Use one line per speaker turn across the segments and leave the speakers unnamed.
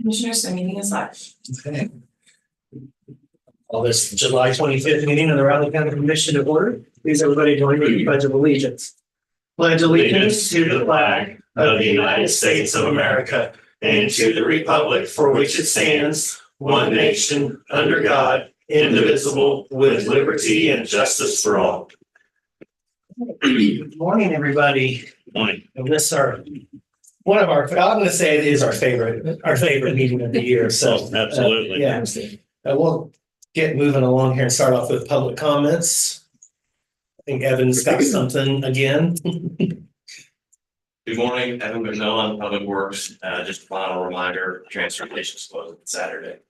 Commissioners, the meeting is live.
Okay. All this July twenty-fifth meeting of the Raleigh County Commission to order. Please, everybody, join me in the pledge of allegiance. Pledge allegiance to the flag of the United States of America and to the republic for which it stands, one nation, under God, indivisible, with liberty and justice for all. Good Morning, everybody.
Morning.
And this our, one of our, I'm gonna say it is our favorite, our favorite meeting of the year, so.
Oh, absolutely.
uh, Yeah. Uh, we'll get moving along here and start off with public comments. I think Evan's got something again.
Good morning, Evan McMillan, Public Works, uh, just a final reminder, transportation is closed Saturday.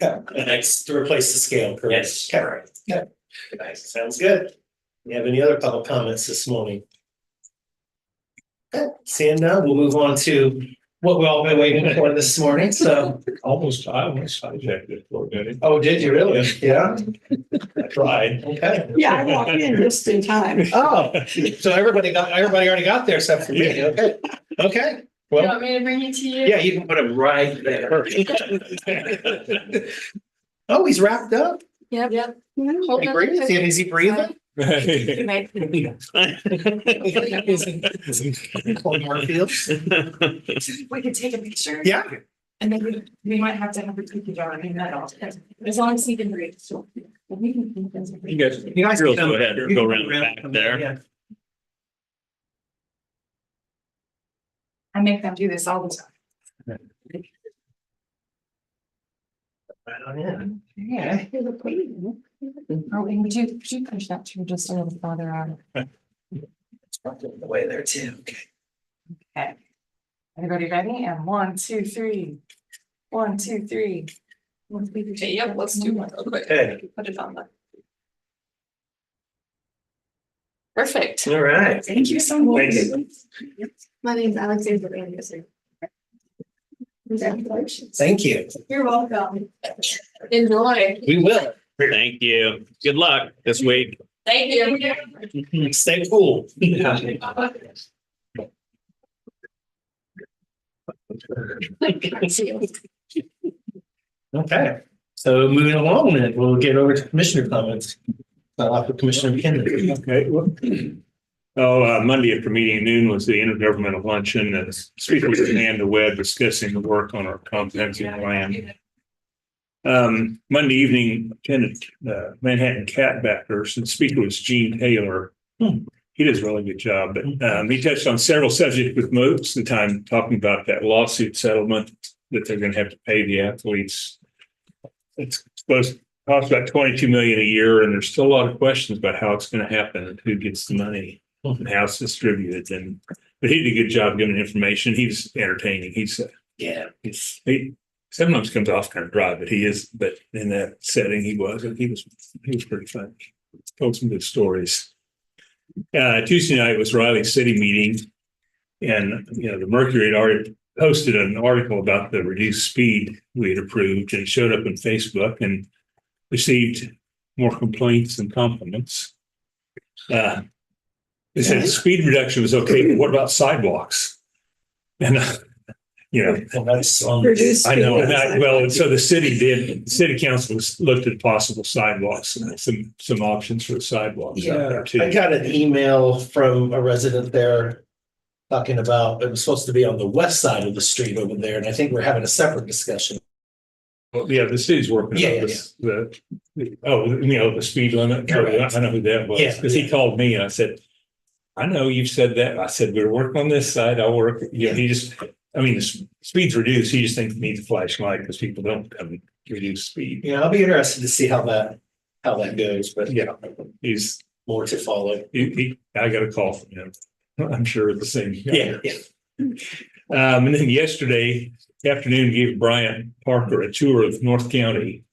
Yeah, and that's to replace the scale, correct?
Yes,
Okay. Yeah. Nice, sounds good. You have any other public comments this morning? Okay, seeing none, we'll move on to what we've all been waiting for this morning, so.
Almost, I almost hijacked it for a minute.
Oh, did you really? Yeah,
I tried.
okay.
Yeah, I walked in just in time.
Oh, so everybody got, everybody already got there except for me, okay, okay.
You
Well,
want me to bring it to you?
yeah, you can put them right there. Oh, he's wrapped up.
Yep. Yep.
Can he breathe? Is he- Is he breathing? Colin Hartfield.
We could take a picture.
Yeah,
And then we, we might have to have a cookie jar, I mean, that all, as long as he can breathe. So, we can-
You guys.
you guys.
Girls,
can come-
go ahead.
you can
Go
come
around the back
come
there.
yeah.
I make them do this all the time.
Right on in.
Yeah. Or Oh, we can do, could you push that to just a little farther out?
The way there too. Okay.
Everybody ready? And one, two, three. One, two, three. Yep, let's do one real quick.
Okay.
Put it on the. Perfect.
All right.
Thank you so much.
Thank you.
My name is Alexandra Anderson. Congratulations.
Thank you.
You're welcome. Enjoy.
We will.
Thank you. Good luck this week.
Thank you.
Stay cool. Okay, so moving along then, we'll get over to commissioner comments. Start off with Commissioner McKinley.
Okay. well, Oh, uh, Monday after meeting at noon was the intergovernmental luncheon and speakers with Amanda Webb discussing the work on our comprehensive plan. Um, Monday evening, attended uh, Manhattan Catbackers and speaker was Gene Taylor. He does a really good job, but um, he touched on several subjects with most of the time talking about that lawsuit settlement that they're going to have to pay the athletes. It's supposed to cost about twenty-two million a year, and there's still a lot of questions about how it's going to happen and who gets the money and how it's distributed. And but he did a good job giving information. He's entertaining. He's
Yeah.
it's, he sometimes comes off kind of dry, but he is, but in that setting, he was, he was, he was pretty funny. Told some good stories. Uh, Tuesday night was Riley City meeting. And, you know, the Mercury had already posted an article about the reduced speed we had approved and it showed up on Facebook and received more complaints and compliments. Uh, They said the speed reduction was okay, but what about sidewalks? And, uh, you know,
Well, that's on.
Reduce
I know, and I,
speed.
well, and so the city did, the city council was- looked at possible sidewalks and some, some options for sidewalks out
Yeah,
there
I
too.
got an email from a resident there talking about, it was supposed to be on the west side of the street over there, and I think we're having a separate discussion.
Well, Yeah, the city's working
Yeah,
on
yeah,
this, the, the- oh, you know, the speed limit, Oh, yeah, I know who that was,
Yeah,
because
yeah.
he called me and I said, I know you've said that, I said, we're working on this side, I'll work, you know, he just, I mean, the s- speed's reduced, he just thinks we need the flashlight because people don't um, reduce speed.
Yeah, I'll be interested to see how that, how that goes, but
Yeah, he's,
more to follow.
he, he, I got a call from him, I'm sure the same. guy.
Yeah, yeah.
Um, and then yesterday afternoon, gave Bryant Parker a tour of North County,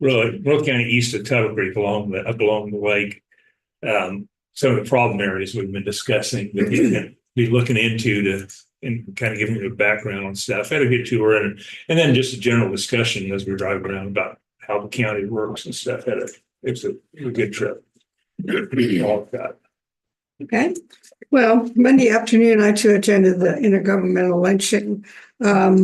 really North County east of Tuttle Creek along the, up along the lake. Um, some of the problem areas we've been discussing that he's going to be looking into to and kind of giving you a background on stuff. Had a good tour and and then just a general discussion as we were driving around about how the county works and stuff. Had a it's a, a good trip. All that.
Okay, well, Monday afternoon, I too attended the intergovernmental luncheon. Um,